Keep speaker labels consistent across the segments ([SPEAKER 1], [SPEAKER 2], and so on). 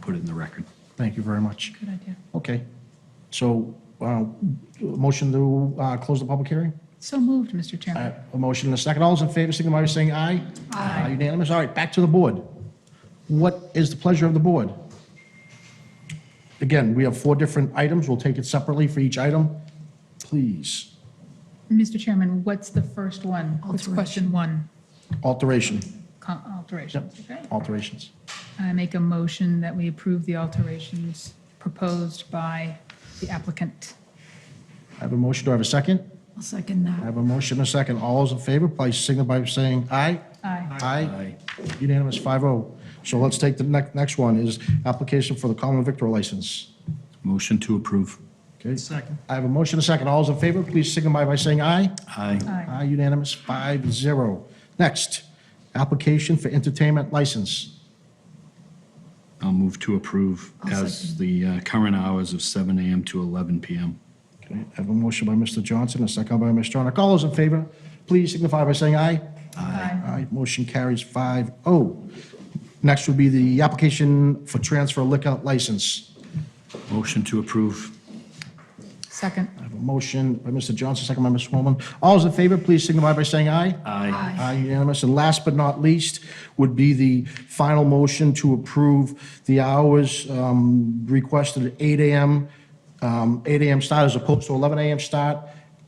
[SPEAKER 1] put it in the record.
[SPEAKER 2] Thank you very much.
[SPEAKER 3] Good idea.
[SPEAKER 2] Okay. So, uh, motion to uh, close the public hearing?
[SPEAKER 3] So moved, Mr. Chairman.
[SPEAKER 2] Uh, A motion and a second. All those in favor, signify by saying aye. Aye. Unanimous. All right, back to the board. What is the pleasure of the board? Again, we have four different items. We'll take it separately for each item. Please.
[SPEAKER 3] Mr. Chairman, what's the first one? What's question one?
[SPEAKER 2] Alteration.
[SPEAKER 3] Co- Alterations, okay?
[SPEAKER 2] Alterations.
[SPEAKER 3] I make a motion that we approve the alterations proposed by the applicant.
[SPEAKER 2] I have a motion. Do I have a second?
[SPEAKER 4] I'll second
[SPEAKER 2] I
[SPEAKER 4] that.
[SPEAKER 2] have a motion and a second. All those in favor, please signify by saying aye.
[SPEAKER 3] Aye.
[SPEAKER 2] Aye. Unanimous, 5-0. So let's take the next, next one is application for the common victor license.
[SPEAKER 1] Motion to approve.
[SPEAKER 2] Okay? Second. I have a motion and a second. All those in favor, please signify by saying aye.
[SPEAKER 1] Aye.
[SPEAKER 3] Aye.
[SPEAKER 2] Aye, unanimous, 5-0. Next, application for entertainment license.
[SPEAKER 1] I'll move to approve
[SPEAKER 4] I'll
[SPEAKER 1] as the uh, current hours of 7 AM to 11 PM.
[SPEAKER 2] Okay, I have a motion by Mr. Johnson, a second by Ms. Stronach. All those in favor, please signify by saying aye.
[SPEAKER 3] Aye.
[SPEAKER 2] Aye, motion carries 5-0. Next would be the application for transfer liquor license.
[SPEAKER 1] Motion to approve.
[SPEAKER 3] Second.
[SPEAKER 2] I have a motion by Mr. Johnson, second by Ms. Swanman. All those in favor, please signify by saying aye.
[SPEAKER 1] Aye.
[SPEAKER 2] Aye Uh, unanimous. And last but not least would be the final motion to approve the hours um, requested at 8 AM, um, 8 AM start as opposed to 11 AM start,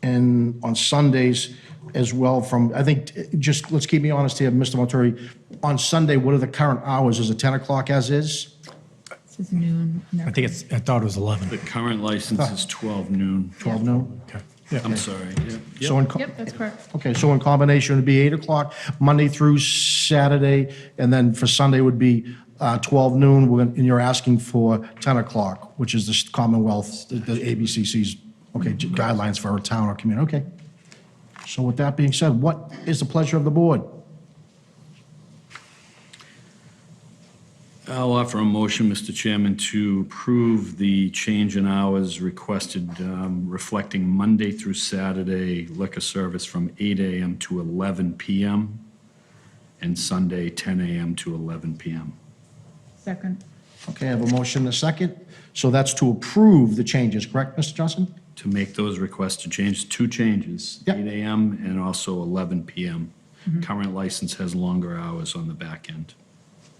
[SPEAKER 2] and on Sundays as well from, I think, eh, just, let's keep me honest here, Mr. Montori, on Sunday, what are the current hours? Is it 10 o'clock as is?
[SPEAKER 3] This is noon.
[SPEAKER 5] I think it's, I thought it was 11.
[SPEAKER 1] The current license is 12 noon.
[SPEAKER 2] 12 noon?
[SPEAKER 5] Okay. Yeah.
[SPEAKER 1] I'm sorry. Yep.
[SPEAKER 2] So in co-
[SPEAKER 3] Yep, that's correct.
[SPEAKER 2] Okay, so in combination, it'd be 8 o'clock, Monday through Saturday, and then for Sunday would be uh, 12 noon, We're gonna- and you're asking for 10 o'clock, which is the Commonwealth, the the ABCC's, okay, guidelines for our town or community, okay. So with that being said, what is the pleasure of the board?
[SPEAKER 1] I'll offer a motion, Mr. Chairman, to approve the change in hours requested um, reflecting Monday through Saturday liquor service from 8 AM to 11 PM and Sunday 10 AM to 11 PM.
[SPEAKER 3] Second.
[SPEAKER 2] Okay, I have a motion and a second, so that's to approve the changes, correct, Mr. Johnson?
[SPEAKER 1] To make those requests to change, two changes,
[SPEAKER 2] Yep.
[SPEAKER 1] 8 AM and also 11 PM. Current license has longer hours on the back end.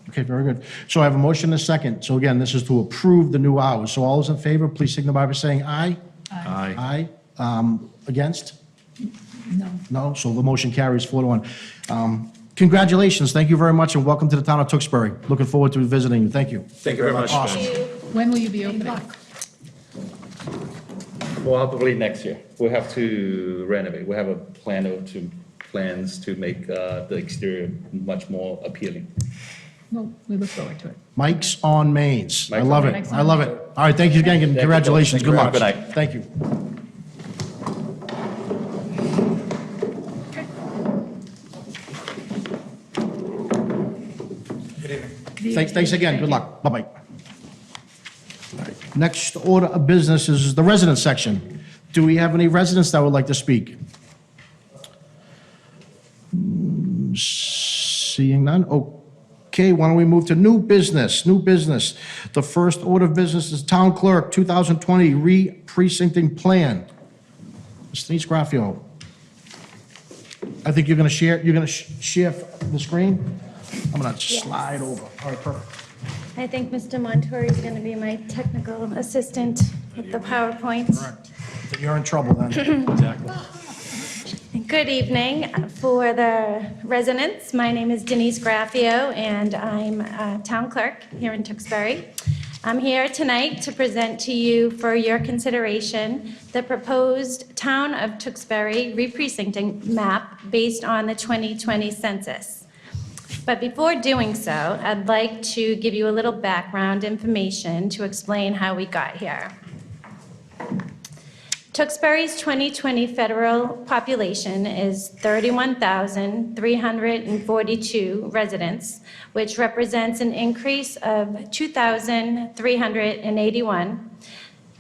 [SPEAKER 2] Okay, very good. So I have a motion and a second, so again, this is to approve the new hours, so all those in favor, please signify by saying aye.
[SPEAKER 1] Aye.
[SPEAKER 2] Aye. Um, Against?
[SPEAKER 4] No.
[SPEAKER 2] No, so the motion carries four to one. Um, Congratulations, thank you very much, and welcome to the town of Tewksbury. Looking forward to visiting you, thank you.
[SPEAKER 6] Thank you very much.
[SPEAKER 3] When will you be
[SPEAKER 4] Good
[SPEAKER 3] opening?
[SPEAKER 4] luck.
[SPEAKER 6] Probably next year. We have to renovate. We have a plan of to, plans to make uh, the exterior much more appealing.
[SPEAKER 3] Well, we look forward to it.
[SPEAKER 2] Mike's on Mains. I
[SPEAKER 6] Mike's on
[SPEAKER 2] love it,
[SPEAKER 3] Mains.
[SPEAKER 2] I love it. All right, thank you again, and
[SPEAKER 6] both.
[SPEAKER 2] congratulations,
[SPEAKER 6] Thank you
[SPEAKER 2] good
[SPEAKER 6] very
[SPEAKER 2] luck.
[SPEAKER 6] much. Good night.
[SPEAKER 2] Thank you. Thanks, thanks again, good luck, bye-bye. All right, Next order of business is the resident section. Do we have any residents that would like to speak? Mm, Seeing none, okay, why don't we move to new business, new business. The first order of business is Town Clerk 2020 re-precincting plan. Mr. Denise Graffio. I think you're going to share, you're going to share the screen? I'm going to slide over. All right, perfect.
[SPEAKER 7] I think Mr. Montori is going to be my technical assistant with the PowerPoint.
[SPEAKER 2] Then You're in trouble then.
[SPEAKER 7] Good evening. For the residents, my name is Denise Graffio, and I'm a Town Clerk here in Tewksbury. I'm here tonight to present to you for your consideration the proposed Town of Tewksbury re-precincting map based on the 2020 census. But before doing so, I'd like to give you a little background information to explain how we got here. Tewksbury's 2020 federal population is 31,342 residents, which represents an increase of 2,381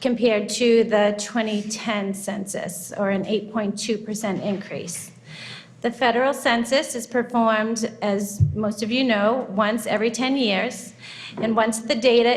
[SPEAKER 7] compared to the 2010 census, or an 8.2% increase. The federal census is performed, as most of you know, once every 10 years, and once the data